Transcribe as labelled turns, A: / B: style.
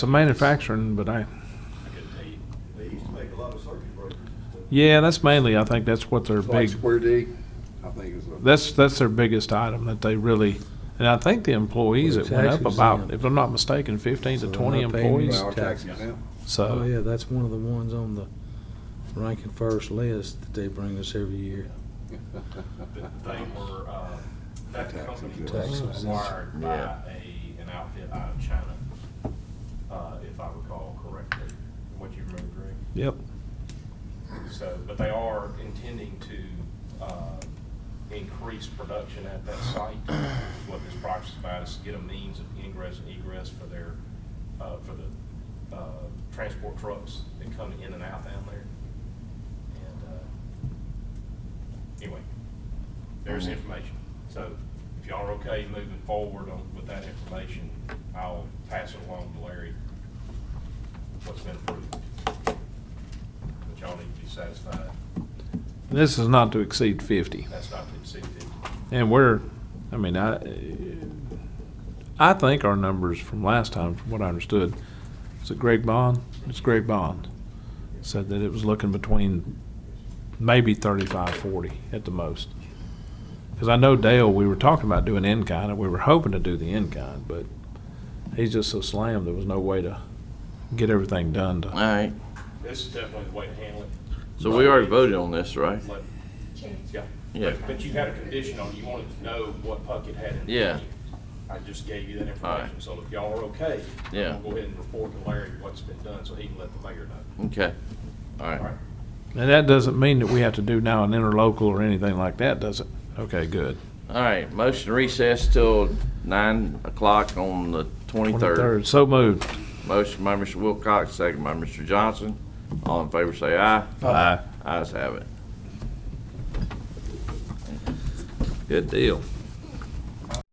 A: It's a manufacturing, but I,
B: I couldn't tell you.
C: They used to make a lot of circuit breakers and stuff.
A: yeah, that's mainly, I think that's what their
D: It's
A: big,
D: Like Square D, I think it's. a-
A: that's, that's their biggest item that they really, and I think the employees,
E: Well,
A: it went up
E: taxes,
A: about,
E: yeah.
A: if I'm not mistaken, fifteen
E: So
A: to
E: they're
A: twenty
E: not paying any
A: employees,
D: Our tax exempt.
E: Oh,
A: so,
E: yeah, that's one of the ones on the ranking first list that they bring us every year.
B: But they were, uh, that
D: Tax
B: company was
D: exempt.
E: Tax exempt.
B: acquired by
F: Yeah.
B: a, an outfit out of China, uh, if I recall correctly, from what you remember, Greg.
A: yep.
B: So, but they are intending to uh, increase production at that site. Is What this project's about is to get a means of ingress and egress for their, uh, for the uh, transport trucks that come in and out down there. And uh, anyway, there's the information. So if y'all are okay moving forward on- with that information, I'll pass it along to Larry, what's been approved. But y'all need to be satisfied.
A: This is not to exceed fifty.
B: That's not to exceed fifty.
A: And we're, I mean, I, I think our numbers from last time, from what I understood, was it Greg Bond? It's Greg Bond. Said that it was looking between maybe 35, 40 at the most. Because I know Dale, we were talking about doing in-kind, and we were hoping to do the in-kind, but he's just so slammed, there was no way to get everything done
F: All
A: to,
F: right,
B: This is definitely the way to handle it.
F: so we already voted on this, right?
B: Let- Yeah.
F: Yeah.
B: But- But you had a condition on, it. you wanted to know what Puckett had in.
F: Yeah.
B: menu. I just gave you that
F: All right.
B: information, so if y'all are okay. I'm
F: Yeah.
B: gonna Go ahead and report to Larry what's been done, so he can let the mayor know.
F: Okay, all
B: All right.
F: right.
A: and that doesn't mean that we have to do now an interlocal or anything like that, does it? Okay, good.
F: All right, motion to recess till nine o'clock on the twenty-third.
A: So moved.
F: Motion by Mr. Wilcox, second by Mr. Johnson. All in favor, say aye.
A: Aye.
F: Ayes have it. Good deal.